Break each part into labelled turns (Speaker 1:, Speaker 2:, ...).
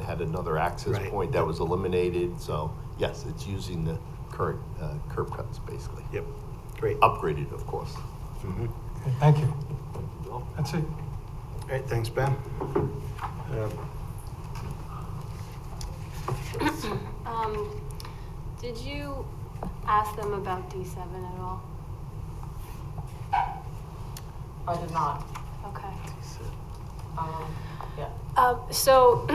Speaker 1: had another access
Speaker 2: Right.
Speaker 1: point that was eliminated, so yes, it's using the current uh, curb cuts, basically.
Speaker 2: Yep, great. All
Speaker 1: Upgraded, of course.
Speaker 3: Okay, Thank you. That's it.
Speaker 2: right, thanks, Ben. Um,
Speaker 4: Um, did you ask them about D seven at all?
Speaker 5: I did not.
Speaker 4: Okay.
Speaker 5: Um, yeah.
Speaker 4: Uh, so,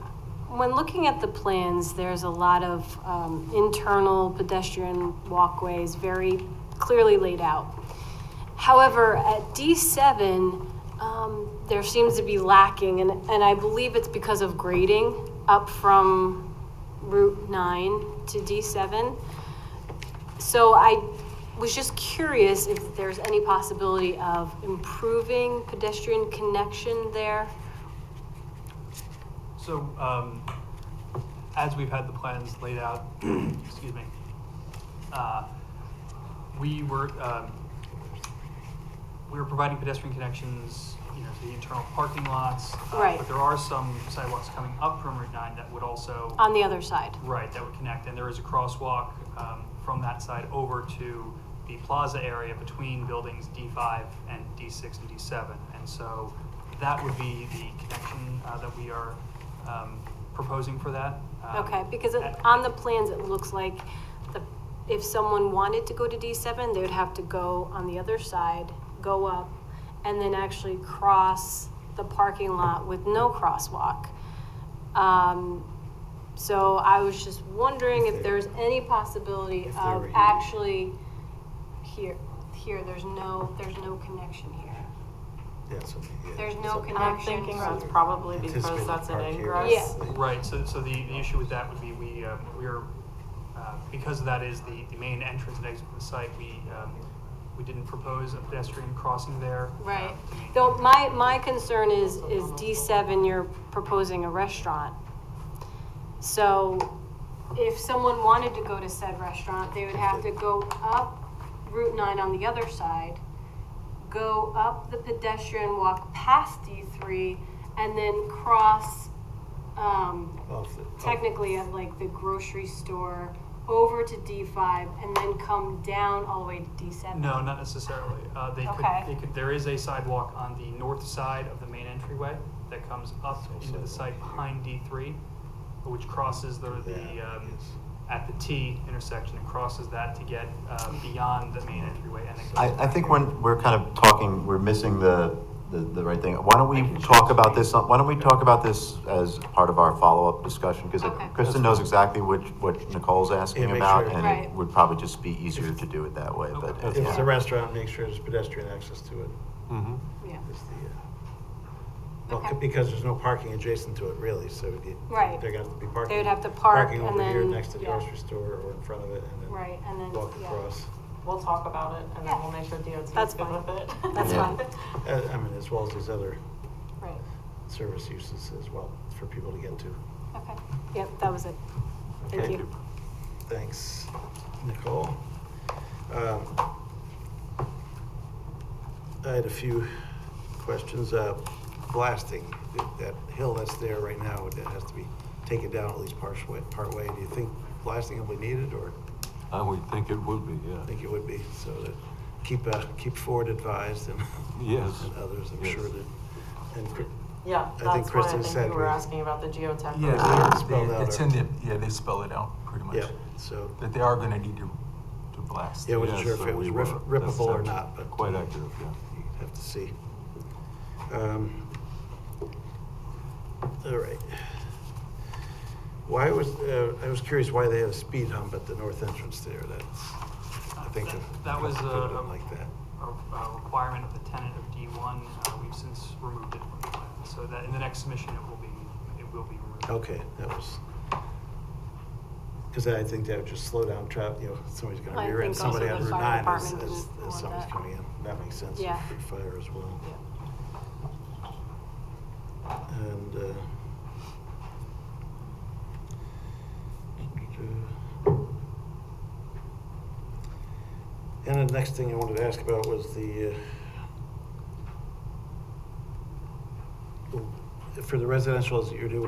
Speaker 4: when looking at the plans, there's a lot of um, internal pedestrian walkways very clearly laid out. However, at D7, um, there seems to be lacking, and, and I believe it's because of grading up from Route 9 to D7. So I was just curious if there's any possibility of improving pedestrian connection there?
Speaker 6: So, um, as we've had the plans laid out, excuse me, uh, we were, um, we were providing pedestrian connections, you know, to the internal parking lots. uh,
Speaker 4: Right.
Speaker 6: But there are some sidewalks coming up from Route nine that would also.
Speaker 4: On the other side?
Speaker 6: Right, that would connect, and there is a crosswalk um, from that side over to the plaza area between buildings D5 and D6 and D7. And so that would be the connection uh, that we are um, proposing for that. Um,
Speaker 4: Okay, because it-
Speaker 6: and-
Speaker 4: on the plans, it looks like the, if someone wanted to go to D7, they would have to go on the other side, go up, and then actually cross the parking lot with no crosswalk. Um, So I was just wondering if there's any possibility
Speaker 2: If they were
Speaker 4: of
Speaker 2: here.
Speaker 4: actually here, here, there's no, there's no connection here.
Speaker 2: Yeah, so, yeah,
Speaker 4: There's no
Speaker 2: so-
Speaker 4: connection.
Speaker 5: I'm thinking that's probably because
Speaker 2: Anticipated
Speaker 5: that's an
Speaker 2: park here.
Speaker 5: ingress.
Speaker 4: Yeah.
Speaker 6: Right, so, so the, the issue with that would be we, um, we are, uh, because that is the, the main entrance and exit of the site, we, um, we didn't propose a pedestrian crossing there.
Speaker 4: Right.
Speaker 6: Um,
Speaker 4: Though my, my concern is, is D7, you're proposing a restaurant. So if someone wanted to go to said restaurant, they would have to go up Route 9 on the other side, go up the pedestrian walk past D3, and then cross, um,
Speaker 2: off the- oh. off-
Speaker 4: technically at like the grocery store over to D5, and then come down all the way to D7.
Speaker 6: No, not necessarily. Uh, they could,
Speaker 4: Okay.
Speaker 6: they could, there is a sidewalk on the north side of the main entryway that comes up into the site behind D three, which crosses the, the,
Speaker 2: Yeah,
Speaker 6: um,
Speaker 2: yes.
Speaker 6: at the T intersection and crosses that to get, uh, beyond the main entryway and then goes.
Speaker 7: I, I
Speaker 6: back.
Speaker 7: think when we're kind of talking, we're missing the, the, the right thing. Why don't we
Speaker 6: Thank you.
Speaker 7: talk about this, on- why don't we talk about this as part of our follow-up discussion? Because
Speaker 4: Okay.
Speaker 7: Kristen knows exactly which, what Nicole's
Speaker 2: Yeah,
Speaker 7: asking
Speaker 2: make
Speaker 7: about,
Speaker 2: sure-
Speaker 7: and
Speaker 4: Right.
Speaker 7: it would probably just be easier to do it that way,
Speaker 6: Okay.
Speaker 7: but.
Speaker 2: If it's
Speaker 7: yeah.
Speaker 2: a restaurant, make sure there's pedestrian access to it.
Speaker 1: Mhm.
Speaker 4: Yeah.
Speaker 2: Is the, uh, well,
Speaker 4: Okay.
Speaker 2: c- because there's no parking adjacent to it really, so it-
Speaker 4: Right.
Speaker 2: they're gonna have to be parking.
Speaker 4: would have to park
Speaker 2: Parking
Speaker 4: and
Speaker 2: over here
Speaker 4: then-
Speaker 2: next to the
Speaker 4: yeah.
Speaker 2: grocery store or in front of it and then.
Speaker 4: Right, and then,
Speaker 2: Walk
Speaker 4: yeah.
Speaker 2: across.
Speaker 5: We'll talk about it and then
Speaker 4: Yeah.
Speaker 5: we'll make sure DOT
Speaker 4: That's
Speaker 5: is good
Speaker 4: fine.
Speaker 5: with it.
Speaker 4: That's
Speaker 7: Yeah.
Speaker 4: fine.
Speaker 2: Uh, I mean, as well as these other
Speaker 4: Right,
Speaker 2: service uses as well for people to get to.
Speaker 4: okay. Yep, that was it. Thank
Speaker 2: Thank
Speaker 4: you.
Speaker 2: you. Thanks, Nicole. Um, I had a few questions. Uh, Blasting, that- that hill that's there right now, that has to be taken down at least partway, partway. Do you think blasting will be needed, or
Speaker 8: I would think it would be,
Speaker 2: I
Speaker 8: yeah.
Speaker 2: think it would be? So that, keep, uh, keep Ford advised and
Speaker 8: Yes.
Speaker 2: and others, I'm
Speaker 8: Yes.
Speaker 2: sure that. and Cr-
Speaker 5: Yeah,
Speaker 2: I think
Speaker 5: that's why I
Speaker 2: Kristen
Speaker 5: think
Speaker 2: said
Speaker 5: you were
Speaker 2: we-
Speaker 5: asking about the geotech.
Speaker 2: Yeah,
Speaker 8: Yeah,
Speaker 2: they- spelled
Speaker 8: Ah, they-
Speaker 2: out
Speaker 8: it's
Speaker 2: or-
Speaker 8: in the, yeah, they spell it out pretty much.
Speaker 2: Yeah, so,
Speaker 8: That they are gonna need to, to blast.
Speaker 2: Yeah, I wasn't
Speaker 8: Yeah,
Speaker 2: sure if
Speaker 8: so
Speaker 2: it was
Speaker 8: we
Speaker 2: rip-
Speaker 8: were- that's-
Speaker 2: rippable or
Speaker 8: that's
Speaker 2: not, but-
Speaker 8: Quite accurate, yeah.
Speaker 2: you have to see. Um, All right. Why was, uh, I was curious why they had a speed hump at the north entrance there, that's, I think.
Speaker 6: That-
Speaker 2: a
Speaker 6: that was,
Speaker 2: couple could've
Speaker 6: uh,
Speaker 2: done Like that.
Speaker 6: a a requirement of the tenant of D1. uh, We've since removed it from the plan. So that in the next submission, it will be, it will be removed.
Speaker 2: Okay, that was, because I think that would just slow down traffic, you know, somebody's
Speaker 4: I
Speaker 2: gonna rear end
Speaker 4: think also
Speaker 2: somebody
Speaker 4: the
Speaker 2: on Route
Speaker 4: fire
Speaker 2: 9 as,
Speaker 4: department
Speaker 2: as
Speaker 4: didn't
Speaker 2: as
Speaker 4: want
Speaker 2: someone's
Speaker 4: that.
Speaker 2: coming in. That makes sense.
Speaker 4: Yeah.
Speaker 2: Free fire as well.
Speaker 4: Yeah.
Speaker 2: And, uh, and the next thing I wanted to ask about was the, uh, for the residential that you're doing